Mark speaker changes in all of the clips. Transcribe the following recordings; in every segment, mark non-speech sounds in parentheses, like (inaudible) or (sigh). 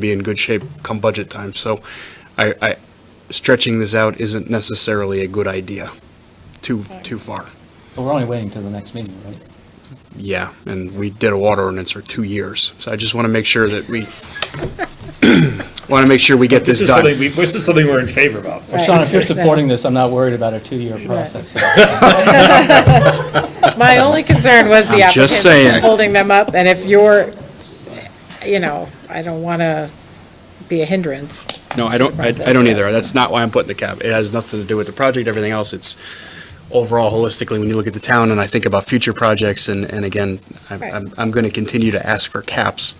Speaker 1: be in good shape come budget time. So I, I, stretching this out isn't necessarily a good idea too, too far.
Speaker 2: But we're only waiting till the next meeting, right?
Speaker 1: Yeah, and we did a water ordinance for two years. So I just want to make sure that we, (clears throat) want to make sure we get this
Speaker 3: is something
Speaker 1: done.
Speaker 3: we- This is something we're in favor of.
Speaker 4: Right.
Speaker 2: Sean, if you're supporting this, I'm not worried about a two-year process.
Speaker 4: (laughs) My only concern was the
Speaker 1: I'm just saying.
Speaker 4: applicants holding them up, and if you're, you know, I don't want to be a hindrance.
Speaker 1: No, I don't, I I don't either. That's not why I'm putting the cap. It has nothing to do with the project, everything else. It's overall holistically, when you look at the town and I think about future projects and, and again, I'm-
Speaker 4: Right.
Speaker 1: I'm, I'm going to continue to ask for caps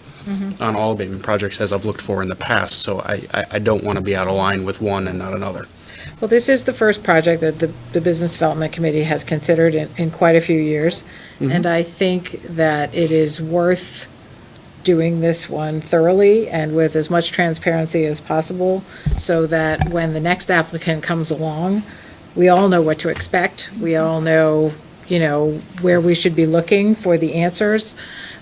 Speaker 1: on all abatement projects as I've looked for in the past. So I, I, I don't want to be out of line with one and not another.
Speaker 4: Well, this is the first project that the, the Business Development Committee has considered in, in quite a few years. And I think that it is worth doing this one thoroughly and with as much transparency as possible so that when the next applicant comes along, we all know what to expect. We all know, you know, where we should be looking for the answers.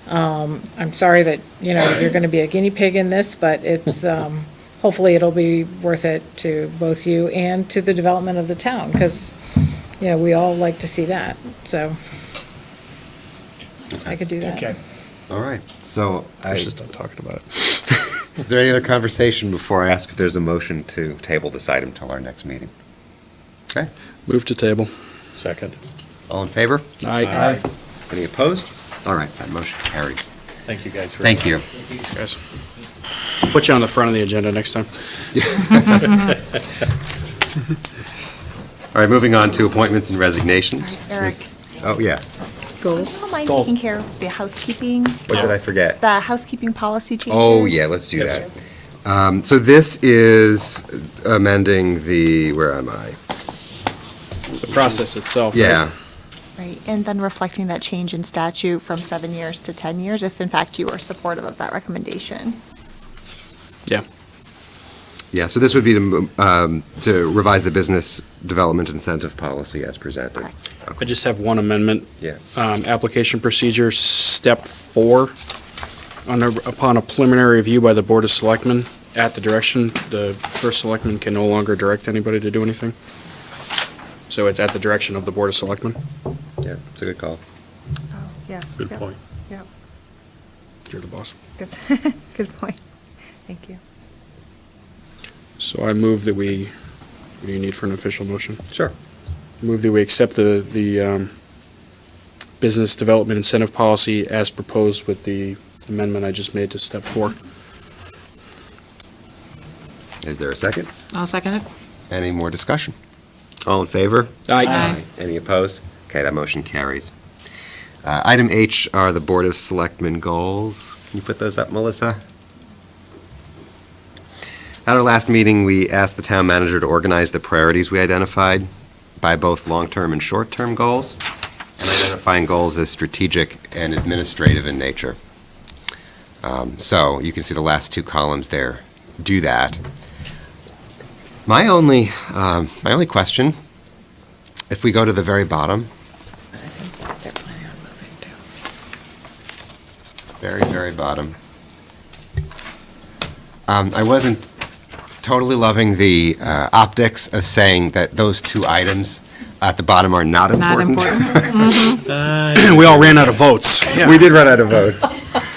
Speaker 4: Um, I'm sorry that, you know, you're going to be a guinea pig in this, but it's, um, hopefully it'll be worth it to both you and to the development of the town, because, you know, we all like to see that, so. I could do
Speaker 3: Okay.
Speaker 4: that.
Speaker 5: All right, so I,
Speaker 1: I should
Speaker 5: is (laughs)
Speaker 1: stop talking about it.
Speaker 5: there any other conversation before I ask if there's a motion to table this item till our next meeting? Okay,
Speaker 1: Move to table.
Speaker 3: Second.
Speaker 5: all in favor?
Speaker 1: Aye.
Speaker 2: Aye.
Speaker 5: Any opposed? All right, that motion carries.
Speaker 3: Thank you guys. for-
Speaker 5: Thank you.
Speaker 1: Thanks, guys. Put you on the front of the agenda next time.
Speaker 5: All right, moving on to appointments and resignations.
Speaker 6: Eric,
Speaker 5: Oh, yeah,
Speaker 4: Goals?
Speaker 6: do you mind taking care of the housekeeping,
Speaker 5: what did I forget?
Speaker 6: the housekeeping policy changes?
Speaker 5: Oh, yeah, let's do that. Um, So this is amending the, where am I?
Speaker 1: The process itself. right?
Speaker 5: Yeah,
Speaker 6: Right, and then reflecting that change in statute from seven years to 10 years, if in fact you are supportive of that recommendation.
Speaker 1: Yeah.
Speaker 5: yeah, so this would be to um, to revise the business development incentive policy as presented.
Speaker 6: Correct.
Speaker 1: I just have one amendment.
Speaker 5: Yeah.
Speaker 1: Um, application procedure, step four. On a- upon a preliminary review by the Board of Selectmen, at the direction, the first selectman can no longer direct anybody to do anything. So it's at the direction of the Board of Selectmen.
Speaker 5: Yeah, it's a good call.
Speaker 6: Oh, yes.
Speaker 3: Good point.
Speaker 6: Yep,
Speaker 1: You're the boss.
Speaker 6: good, (laughs) good point. Thank you.
Speaker 1: So I move that we, what do you need for an official motion?
Speaker 5: Sure.
Speaker 1: Move that we accept the, the, um, business development incentive policy as proposed with the amendment I just made to step four.
Speaker 5: Is there a second?
Speaker 4: I'll second it.
Speaker 5: Any more discussion? All in favor?
Speaker 4: Aye.
Speaker 5: Any opposed? Okay, that motion carries. Uh, Item H are the Board of Selectmen goals. Can you put those up, Melissa? At our last meeting, we asked the town manager to organize the priorities we identified by both long-term and short-term goals, and identifying goals as strategic and administrative in nature. Um, So you can see the last two columns there do that. My only, um, my only question if we go to the very bottom,
Speaker 4: They're planning on moving too.
Speaker 5: very, very bottom, um, I wasn't totally loving the uh, optics of saying that those two items at the bottom are not important.
Speaker 1: (clears throat) We all ran out of votes.
Speaker 5: We did run out of votes. (laughs)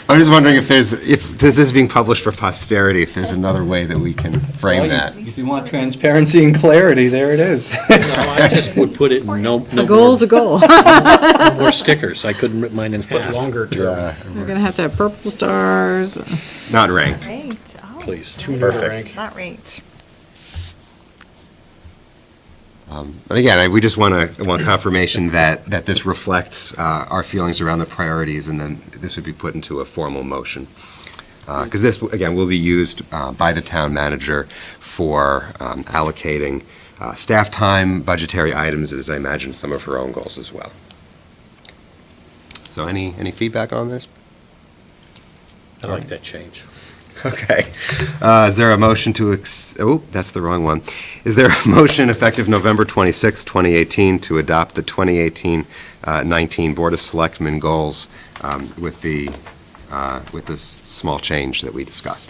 Speaker 5: I'm just wondering if there's, if, this is being published for posterity, if there's another way that we can frame that.
Speaker 2: If you want transparency and clarity, there it is.
Speaker 7: I just would put it in no,
Speaker 4: A
Speaker 7: no
Speaker 4: goal's
Speaker 7: more-
Speaker 4: a goal.
Speaker 7: no more stickers. I couldn't rip mine in half.
Speaker 1: term.
Speaker 4: We're gonna have to have purple stars.
Speaker 5: Not ranked.
Speaker 6: Ranked, oh.
Speaker 7: Please.
Speaker 1: Two to
Speaker 5: Perfect.
Speaker 1: rank.
Speaker 6: Not ranked.
Speaker 5: Um, But again, I- we just want to, want confirmation that, that this reflects uh, our feelings around the priorities, and then this would be put into a formal motion. Because this, again, will be used uh, by the town manager for um, allocating uh, staff time, budgetary items, as I imagine some of her own goals as well. So any, any feedback on this?
Speaker 7: I like that change.
Speaker 5: Okay. Uh, Is there a motion to, ex- oh, that's the wrong one. Is there a motion effective November 26, 2018, to adopt the 2018-19 Board of uh, Selectmen goals um, with the, uh, with this small change that we discussed?